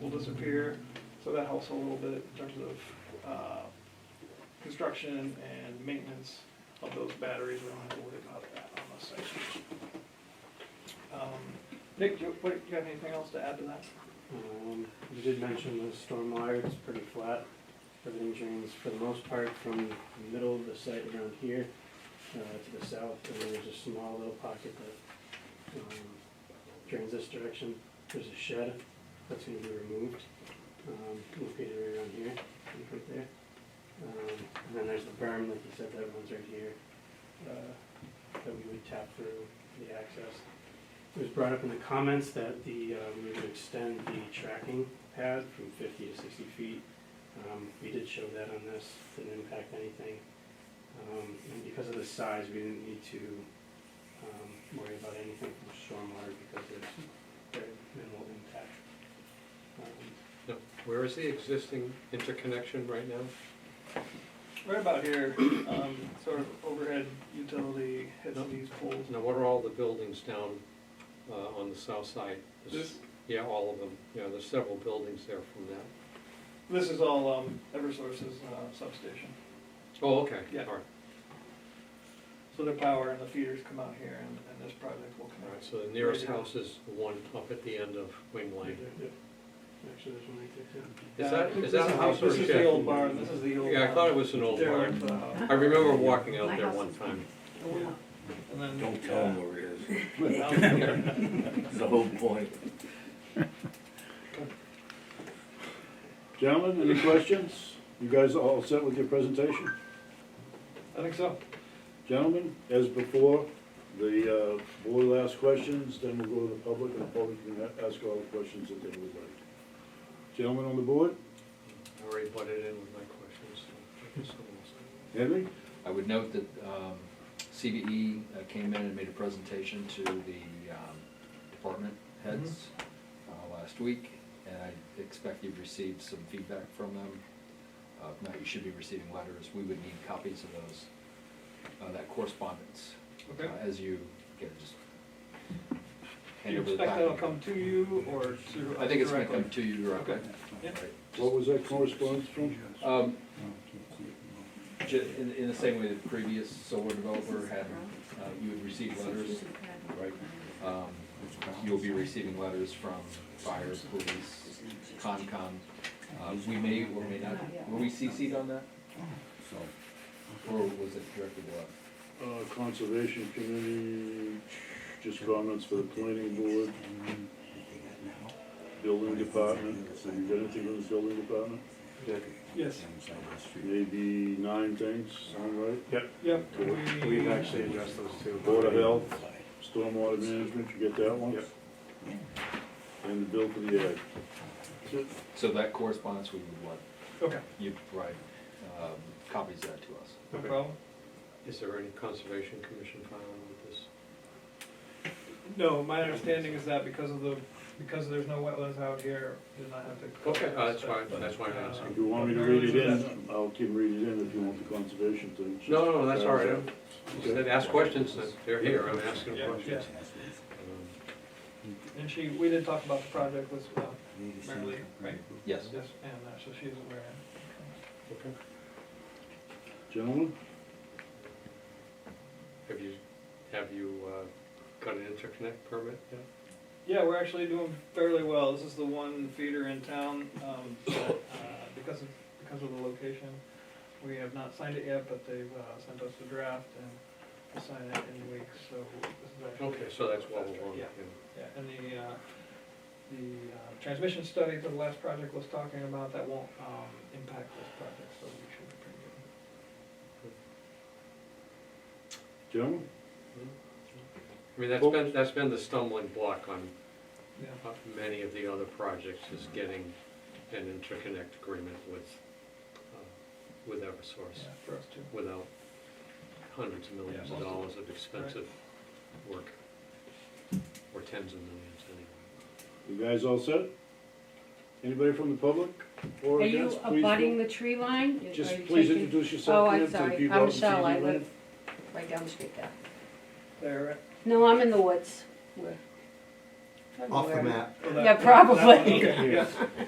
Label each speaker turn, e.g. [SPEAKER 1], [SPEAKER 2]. [SPEAKER 1] will disappear. So that helps a little bit in terms of uh, construction and maintenance of those batteries. We don't have to worry about that on the site. Um, Nick, do you, what, you have anything else to add to that?
[SPEAKER 2] Um, You did mention the storm wire, it's pretty flat. Everything drains for the most part from the middle of the site around here uh, to the south, and then there's a small little pocket that um, drains this direction. There's a shed that's gonna be removed, um, located right around here, right there. Um, And then there's the berm, like you said, that runs right here, uh, that we would tap through for the access. It was brought up in the comments that the, uh, we would extend the tracking pad from fifty to sixty feet. Um, we did show that on this, didn't impact anything. Um, and because of the size, we didn't need to, um, worry about anything from stormwater because there's very minimal impact. Um,
[SPEAKER 3] No. Where is the existing interconnection right now?
[SPEAKER 1] Right about here, um, sort of overhead utility hits these poles.
[SPEAKER 3] Now, what are all the buildings down uh, on the south side? Is-
[SPEAKER 1] This,
[SPEAKER 3] Yeah, all of them. Yeah, there's several buildings there from that.
[SPEAKER 1] this is all um, Eversource's uh, substation.
[SPEAKER 3] Oh, okay.
[SPEAKER 1] Yeah.
[SPEAKER 3] All right,
[SPEAKER 1] So the power and the feeders come out here and, and this project will
[SPEAKER 3] all right.
[SPEAKER 1] connect.
[SPEAKER 3] So the nearest
[SPEAKER 1] Right now.
[SPEAKER 3] house is the one up at the end of Wing Lane.
[SPEAKER 2] Actually, there's one right there too.
[SPEAKER 3] Is
[SPEAKER 1] Yeah,
[SPEAKER 3] that,
[SPEAKER 1] I think
[SPEAKER 3] is
[SPEAKER 1] this
[SPEAKER 3] that a house or
[SPEAKER 1] This
[SPEAKER 3] a
[SPEAKER 1] is the
[SPEAKER 3] shed?
[SPEAKER 1] old barn, this is the old.
[SPEAKER 3] Yeah, I thought it was an old
[SPEAKER 1] There,
[SPEAKER 3] barn.
[SPEAKER 1] uh, yeah.
[SPEAKER 3] I remember walking out there one time.
[SPEAKER 1] And then. uh,
[SPEAKER 4] Don't tell him where it is,
[SPEAKER 1] yeah, down here.
[SPEAKER 4] That's the whole point.
[SPEAKER 5] Gentlemen, any questions? You guys all set with your presentation?
[SPEAKER 1] I think so.
[SPEAKER 5] Gentlemen, as before, the uh, board will ask questions, then we'll go to the public, and the public can a- ask all the questions that they would like. Gentlemen on the board,
[SPEAKER 3] I already butted in with my questions. so I guess someone else-
[SPEAKER 5] Henry?
[SPEAKER 6] I would note that um, CVE uh, came in and made a presentation to the um, department heads
[SPEAKER 5] Mm-hmm.
[SPEAKER 6] uh, last week, and I expect you've received some feedback from them. Uh, If not, you should be receiving letters. We would need copies of those, uh, that correspondence, uh,
[SPEAKER 1] Okay.
[SPEAKER 6] as you get just.
[SPEAKER 1] Do you
[SPEAKER 6] hand over the
[SPEAKER 1] expect that'll
[SPEAKER 6] document.
[SPEAKER 1] come to you or to?
[SPEAKER 6] I think it's gonna
[SPEAKER 1] directly?
[SPEAKER 6] come to you directly.
[SPEAKER 1] Okay. Yeah.
[SPEAKER 5] What was that correspondence from?
[SPEAKER 6] Um, ju- in, in the same way that previous solar developer had, uh, you would receive letters Right. Um, You'll be receiving letters from fire, police, Concom. Uh, We may or may not, were we CC'd on that? Or was it directly to us?
[SPEAKER 5] Uh, Conservation Committee, just comments for the planning board, building department. Have you got anything from the building department?
[SPEAKER 1] Yes,
[SPEAKER 5] Maybe nine things, sound right?
[SPEAKER 1] yep.
[SPEAKER 2] Yep, we've actually addressed those two.
[SPEAKER 5] Board of Health, Stormwater Management, you get that one?
[SPEAKER 2] Yep.
[SPEAKER 5] And the bill for the ad.
[SPEAKER 6] So that correspondence we would want,
[SPEAKER 1] Okay,
[SPEAKER 6] you provide um, copies of that to us.
[SPEAKER 1] no
[SPEAKER 2] Okay.
[SPEAKER 1] problem.
[SPEAKER 3] Is there any conservation commission filing with this?
[SPEAKER 1] No, my understanding is that because of the, because there's no wetlands out here, did not have to.
[SPEAKER 3] Okay, uh, that's why, that's why I'm asking.
[SPEAKER 5] If you want me to read it in, I'll keep reading it in if you want the conservation thing.
[SPEAKER 3] No, no, no, that's all right. I'm- I said Ask questions, that they're here, I'm asking
[SPEAKER 1] Yeah,
[SPEAKER 3] questions. Um,
[SPEAKER 1] And she, we did talk about the project with, uh, Mary Lee, right?
[SPEAKER 6] Yes.
[SPEAKER 1] Yes, and uh, so she's aware. Okay.
[SPEAKER 3] Okay.
[SPEAKER 5] Gentlemen,
[SPEAKER 3] Have you, have you uh, got an interconnect permit yet?
[SPEAKER 1] Yeah, we're actually doing fairly well. This is the one feeder in town, um, that, uh, because of, because of the location. We have not signed it yet, but they've, uh, sent us the draft and we'll sign it in weeks, so this is actually.
[SPEAKER 3] Okay, so that's well along.
[SPEAKER 1] Yeah,
[SPEAKER 3] yeah.
[SPEAKER 1] yeah, and the, uh, the, uh, transmission study for the last project was talking about, that won't, um, impact this project, so we should be pretty good.
[SPEAKER 5] gentlemen,
[SPEAKER 3] I mean, that's been, that's been the stumbling block on
[SPEAKER 1] Yeah.
[SPEAKER 3] uh, many of the other projects is getting an interconnect agreement with, uh, with Eversource,
[SPEAKER 1] Yeah, for us too.
[SPEAKER 3] without hundreds of millions of dollars of expensive work, or tens of millions anyway.
[SPEAKER 5] you guys all set? Anybody from the public or
[SPEAKER 7] Are you
[SPEAKER 5] against? Please
[SPEAKER 7] abutting
[SPEAKER 5] go-
[SPEAKER 7] the tree line? Are you
[SPEAKER 5] Just
[SPEAKER 7] taking-
[SPEAKER 5] please introduce
[SPEAKER 7] Oh,
[SPEAKER 5] yourself
[SPEAKER 7] I'm
[SPEAKER 5] again to the
[SPEAKER 7] sorry,
[SPEAKER 5] people out
[SPEAKER 7] I'm
[SPEAKER 5] in
[SPEAKER 7] Michelle, I
[SPEAKER 5] TV land.
[SPEAKER 7] live right down the street there.
[SPEAKER 1] There,
[SPEAKER 7] No, I'm in the woods. Where- I don't know
[SPEAKER 8] Off the
[SPEAKER 7] where I'm-
[SPEAKER 8] map.
[SPEAKER 1] right?
[SPEAKER 7] Yeah, probably.
[SPEAKER 1] Okay, yeah.